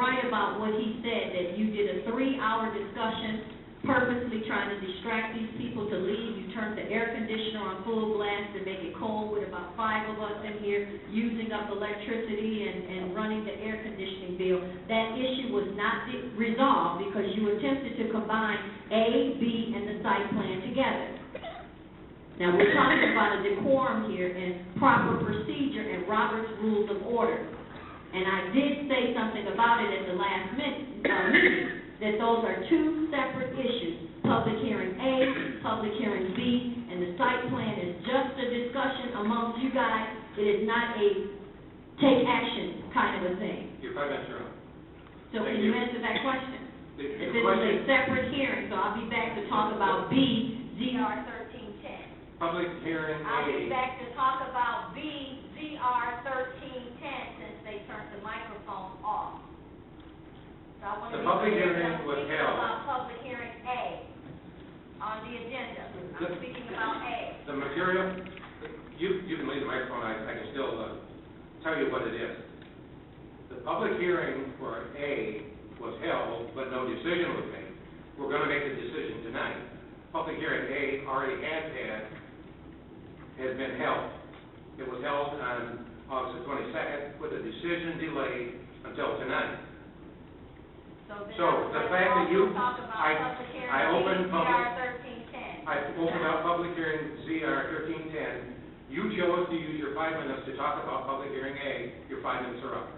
about what he said, that you did a three-hour discussion purposely trying to distract these people to leave. You turned the air conditioner on full blast to make it cold with about five of us in here using up electricity and, and running the air conditioning bill. That issue was not di- resolved because you attempted to combine A, B, and the site plan together. Now, we're talking about a decorum here and proper procedure and Robert's Rules of Order. And I did say something about it at the last min- uh, meeting, that those are two separate issues. Public hearing A, public hearing B, and the site plan is just a discussion amongst you guys. It is not a take action kind of a thing. Your five minutes are up. So can you answer that question? The- The This is a question, separate hearing, so I'll be back to talk about B, ZR thirteen ten. public hearing I'll be A, back to talk about B, ZR thirteen ten, since they turned the microphone off. So I want to. The public hearing was held. About public hearing A on the agenda. I'm The- speaking about A. the material, you, you can leave the microphone, I, I can still, uh, tell you what it is. The public hearing for A was held, but no decision was made. We're gonna make the decision tonight. Public hearing A already has had, has been held. It was held on August the twenty-second with a decision delayed until tonight. then So, I would the like to fact that also you- Talk about I- public hearing I B, opened ZR public- thirteen ten. I opened up public hearing ZR thirteen ten. You chose to use your five minutes to talk about public hearing A. Your five minutes are up.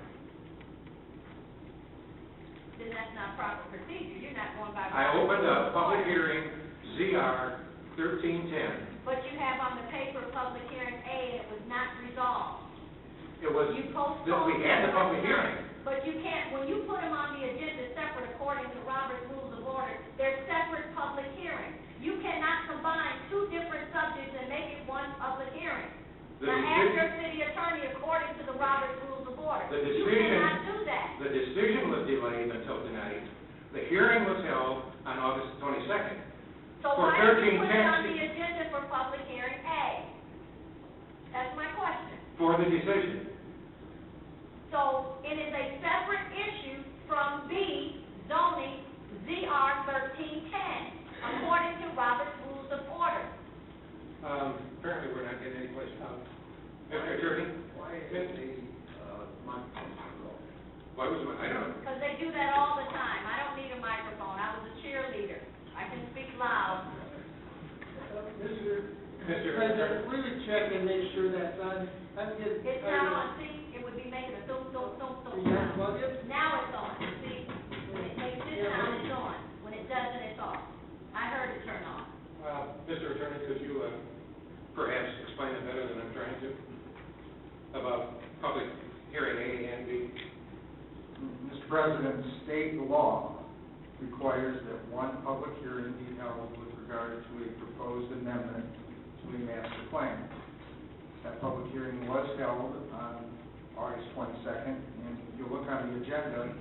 Then that's not proper procedure. You're not going by. I opened up public Order. hearing ZR thirteen ten. But you have on the paper, public hearing A, and it was not resolved. It was, You that postponed. we had the public it one time. hearing. But you can't, when you put them on the agenda separate according to Robert's Rules of Order, they're separate public hearings. You cannot combine two different subjects and make it one public hearing. The Now, ask decision, your city attorney according to the Robert's Rules of Order. The You decision- cannot do that. the decision was delayed until tonight. The hearing was held on August twenty-second. So For why did you put it 1310 on the agenda for public hearing A? That's my question. for the decision. So it is a separate issue from B zoning ZR thirteen ten, according to Robert's Rules of Order. Um, apparently, we're not getting any questions. Mr. Attorney, Why isn't the, uh, microphone on? why was, my- I don't know. Because they do that all the time. I don't need a microphone. I was a cheerleader. I can speak loud. Mr. Mr. Attorney, President, we would check and make sure that's on, that's getting. It's not on, see, it would be making a thump, thump, thump, thump You gotta sound. plug it? Now it's on, see? When it makes this sound, it's on. When it doesn't, it's off. I heard it turn off. Uh, Mr. Attorney, could you uh, perhaps explain it better than I'm trying to? About public hearing A and B? Mr. President, state law requires that one public hearing be held with regard to a proposed amendment to a master plan. That public hearing was held on August twenty-second, and if you look on the agenda,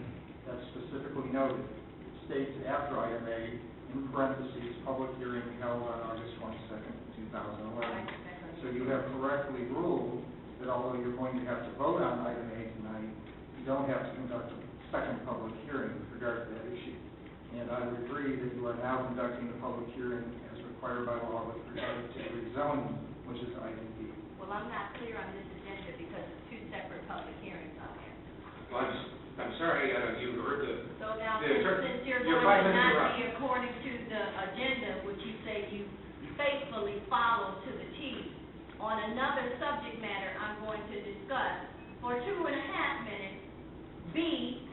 that's specifically noted. It States after item A, in parentheses, public hearing held on August twenty-second, two thousand eleven. So you have correctly ruled that although you're going to have to vote on item A tonight, you don't have to conduct a second public hearing with regard to that issue. And I would agree that you are now conducting a public hearing as required by law with regard to rezoning, which is item B. Well, I'm not clear on this agenda because it's two separate public hearings on there. Well, I'm, s- I'm sorry, uh, you heard the, So now, Yeah, since sure. since you're Your going five to minutes are not up. be according to the agenda, which you say you faithfully follow to the T, on another subject matter I'm going to discuss for two and a half minutes, B,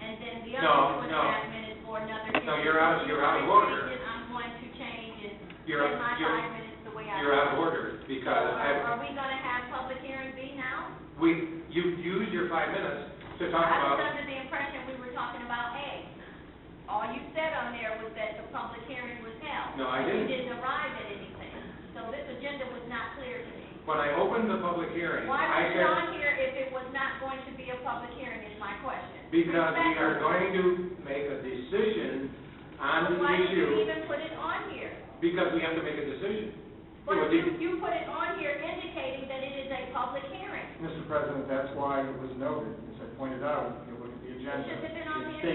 and then the other No, two and no. a half minutes for another. No, you're out- you're out of order. Then I'm going to change and you're, spend my you're, five minutes the way I. you're out of order So because I, Are are we going to have public hearing B now? we, you used your five minutes to talk I was about, under the impression we were talking about A. All you said on there was that the public hearing was held. No, I You didn't. didn't arrive at anything, so this agenda was not clear to me. when I opened the public hearing, Why was it I said, on here if it was not going to be a public hearing is my question. because we are Respectfully. going to make a decision on But the Why did you issue, even put it on here? because we have to make a decision. But would you, be- you put it on here indicating that it is a public hearing. Mr. President, that's why it was noted, as I pointed out, if you look at the It agenda. should have been on it the states agenda.